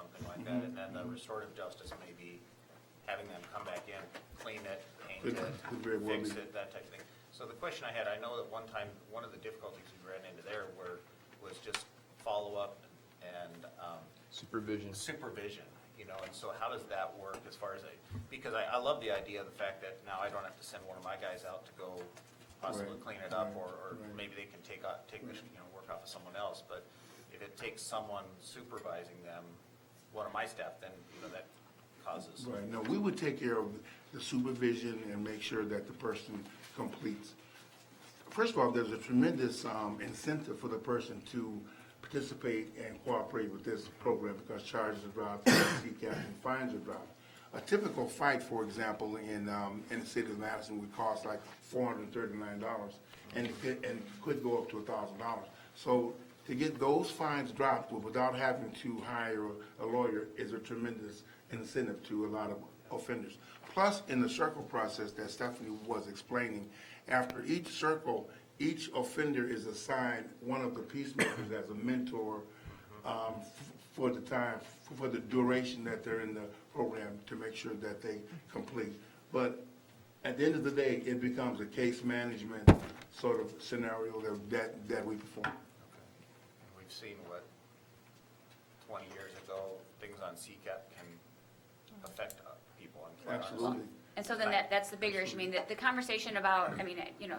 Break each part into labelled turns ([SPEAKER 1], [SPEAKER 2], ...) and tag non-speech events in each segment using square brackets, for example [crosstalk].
[SPEAKER 1] like that, and then the
[SPEAKER 2] Mm-hmm.
[SPEAKER 1] restorative justice may be having them come back in, clean it, paint
[SPEAKER 2] It
[SPEAKER 1] it,
[SPEAKER 2] could very well
[SPEAKER 1] fix
[SPEAKER 2] be.
[SPEAKER 1] it, that type of thing. So the question I had, I know that one time, one of the difficulties we ran into there were, was just follow-up and, um,
[SPEAKER 3] Supervision.
[SPEAKER 1] supervision, you know, and so how does that work as far as, a- because I, I love the idea of the fact that now I don't have to send one of my guys out to go possibly
[SPEAKER 2] Right,
[SPEAKER 1] clean it up,
[SPEAKER 2] right,
[SPEAKER 1] or, or
[SPEAKER 2] right.
[SPEAKER 1] maybe they can take, out- take, this, you know, work off of someone else, but if it takes someone supervising them, one of my staff, then, you know, that causes.
[SPEAKER 2] Right, no, we would take care of the supervision and make sure that the person completes. First of all, there's a tremendous um, incentive for the person to participate and cooperate with this program because charges are dropped, [coughs] CCAP and fines are dropped. A typical fight, for example, in, um, in the city of Madison would cost like four hundred and thirty-nine dollars and it could, and could go up to a thousand dollars. So to get those fines dropped without having to hire a lawyer is a tremendous incentive to a lot of offenders. Plus, in the circle process that Stephanie was explaining, after each circle, each offender is assigned one of the peacemakers as a mentor um, f- for the time, for the duration that they're in the program to make sure that they complete. But at the end of the day, it becomes a case management sort of scenario that, that, that we perform.
[SPEAKER 1] And We've seen what, twenty years ago, things on CCAP can affect uh, people and. put on us.
[SPEAKER 2] Absolutely.
[SPEAKER 4] And so then that, that's the bigger issue. I mean, the, the conversation about, I mean, you know,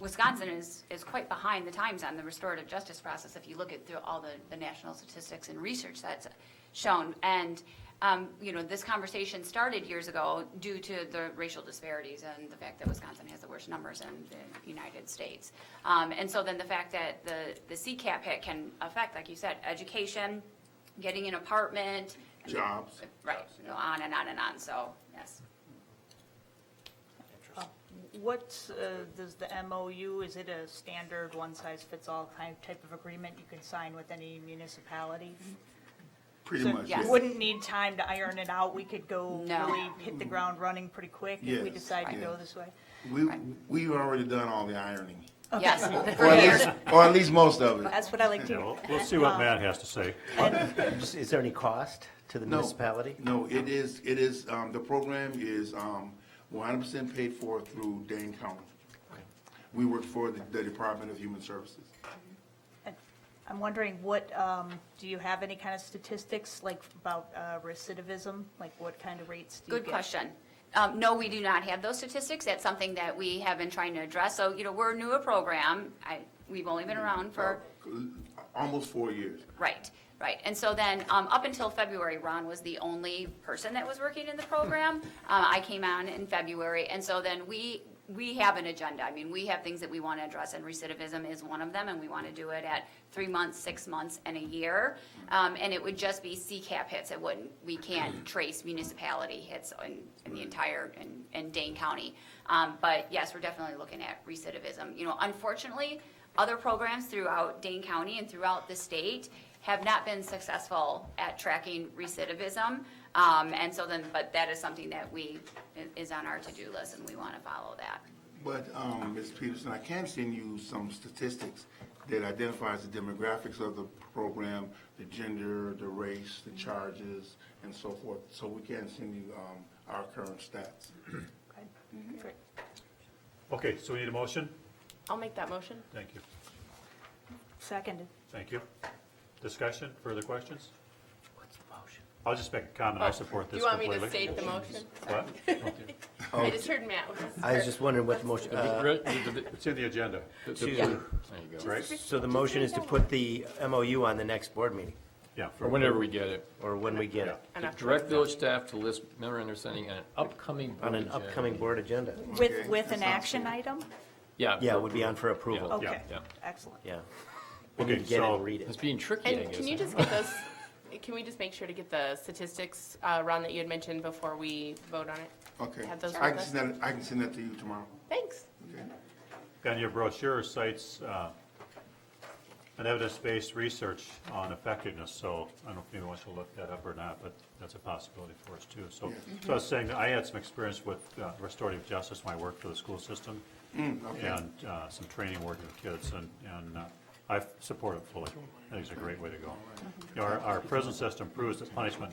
[SPEAKER 4] Wisconsin is, is quite behind the times on the restorative justice process. If you look at through all the, the national statistics and research that's shown. And, um, you know, this conversation started years ago due to the racial disparities and the fact that Wisconsin has the worst numbers in the United States. Um, and so then the fact that the, the CCAP hit can affect, like you said, education, getting an apartment.
[SPEAKER 2] Jobs.
[SPEAKER 4] Right, you know, on and on and on. So, yes.
[SPEAKER 1] Interesting.
[SPEAKER 5] What uh, does the MOU, is it a standard one-size-fits-all kind type of agreement you can sign with any municipality?
[SPEAKER 2] Pretty
[SPEAKER 5] So
[SPEAKER 2] much,
[SPEAKER 4] yes.
[SPEAKER 2] yes.
[SPEAKER 5] you Wouldn't need time to iron it out, we could go
[SPEAKER 4] No.
[SPEAKER 5] really hit the ground running pretty quick if we
[SPEAKER 2] Yes,
[SPEAKER 5] decide to go
[SPEAKER 2] yes.
[SPEAKER 5] this way?
[SPEAKER 2] We, we've already done all the ironing.
[SPEAKER 4] Yes,
[SPEAKER 2] Or at
[SPEAKER 4] prepared.
[SPEAKER 2] least, or at least most of it.
[SPEAKER 5] That's what I like to
[SPEAKER 6] Yeah,
[SPEAKER 5] hear.
[SPEAKER 6] We'll we'll see what Matt has to say.
[SPEAKER 7] Is is there any cost to the
[SPEAKER 2] No.
[SPEAKER 7] municipality?
[SPEAKER 2] No, it is, it is, um, the program is, um, one hundred percent paid for through Dane County. We work for the, the Department of Human Services.
[SPEAKER 5] I'm wondering, what, um, do you have any kind of statistics, like about uh, recidivism? Like what kind of rates do you get?
[SPEAKER 4] Good question. Um, no, we do not have those statistics. That's something that we have been trying to address. So, you know, we're a newer program. I, we've only been around for,
[SPEAKER 2] Almost four years.
[SPEAKER 4] right, right. And so then, um, up until February, Ron was the only person that was working in the program. Uh, I came on in February, and so then we, we have an agenda. I mean, we have things that we want to address, and recidivism is one of them, and we want to do it at three months, six months, and a year. Um, and it would just be CCAP hits. It wouldn't, we can't trace municipality hits in, in the entire, in, in Dane County. Um, but yes, we're definitely looking at recidivism. You know, unfortunately, other programs throughout Dane County and throughout the state have not been successful at tracking recidivism. Um, and so then, but that is something that we, is on our to-do list and we want to follow that.
[SPEAKER 2] But, um, Ms. Peterson, I can send you some statistics that identifies the demographics of the program, the gender, the race, the charges, and so forth. So we can send you, um, our current stats.
[SPEAKER 5] Okay.
[SPEAKER 4] Mm-hmm.
[SPEAKER 5] Great.
[SPEAKER 6] Okay, so we need a motion?
[SPEAKER 8] I'll make that motion.
[SPEAKER 6] Thank you,
[SPEAKER 5] Seconded.
[SPEAKER 6] thank you. Discussion, further questions?
[SPEAKER 7] What's the motion?
[SPEAKER 6] I'll just make a comment, I support
[SPEAKER 8] Oh, Do
[SPEAKER 6] this
[SPEAKER 8] you want me
[SPEAKER 6] completely.
[SPEAKER 8] to state the motion?
[SPEAKER 6] What?
[SPEAKER 8] I just heard Matt was.
[SPEAKER 7] Oh. I was just wondering what the motion, uh,
[SPEAKER 6] It's in the agenda,
[SPEAKER 7] to-
[SPEAKER 6] right?
[SPEAKER 7] so the motion is to put the MOU on the next board meeting,
[SPEAKER 6] Yeah.
[SPEAKER 3] Or whenever we get it.
[SPEAKER 7] or when we get it,
[SPEAKER 8] And after-
[SPEAKER 3] Direct village staff to list memorandum of understanding on an upcoming. board
[SPEAKER 7] on an
[SPEAKER 3] agenda.
[SPEAKER 7] upcoming board agenda.
[SPEAKER 5] With,
[SPEAKER 2] Okay,
[SPEAKER 5] with
[SPEAKER 2] that
[SPEAKER 5] an
[SPEAKER 2] sounds
[SPEAKER 5] action item?
[SPEAKER 3] Yeah.
[SPEAKER 7] Yeah,
[SPEAKER 3] for
[SPEAKER 7] it would be on for approval,
[SPEAKER 5] Okay,
[SPEAKER 6] yeah.
[SPEAKER 5] excellent.
[SPEAKER 7] yeah. We
[SPEAKER 6] Okay,
[SPEAKER 7] need to get it
[SPEAKER 6] so-
[SPEAKER 7] and read
[SPEAKER 3] It's
[SPEAKER 7] it.
[SPEAKER 3] being tricky, I
[SPEAKER 8] And
[SPEAKER 3] guess.
[SPEAKER 8] can you just get those, can we just make sure to get the statistics, uh, Ron, that you had mentioned before we vote on it?
[SPEAKER 2] Okay.
[SPEAKER 8] Have those
[SPEAKER 2] I
[SPEAKER 8] with
[SPEAKER 2] can
[SPEAKER 8] us?
[SPEAKER 2] send that, I can send that to you tomorrow.
[SPEAKER 8] Thanks.
[SPEAKER 2] Okay.
[SPEAKER 6] And your brochure cites uh, an evidence-based research on effectiveness, so I don't know if anyone wants to look that up or not, but that's a possibility for us too. So, so I was saying, that I had some experience with uh, restorative justice when I worked for the school system and uh, some training working with kids, and, and uh, I support it fully. I think it's a great way to go. You know, Our, our prison system proves that punishment